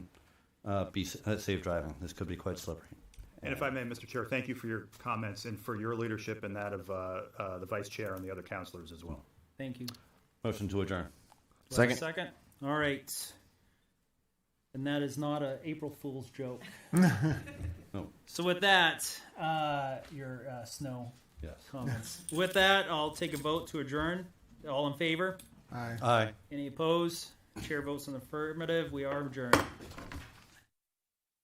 uh, be s- uh, safe driving. This could be quite slippery. And if I may, Mr. Chair, thank you for your comments and for your leadership and that of uh, uh, the vice chair and the other counselors as well. Thank you. Do Motion to adjourn. I have a Second. Second. All right. And that is not a April Fool's joke. No. So with that, uh, your uh, snow Yes. comments. with that, I'll take a vote to adjourn. All in favor? Aye. Aye. Any opposed? Chair votes in the affirmative. We are adjourned.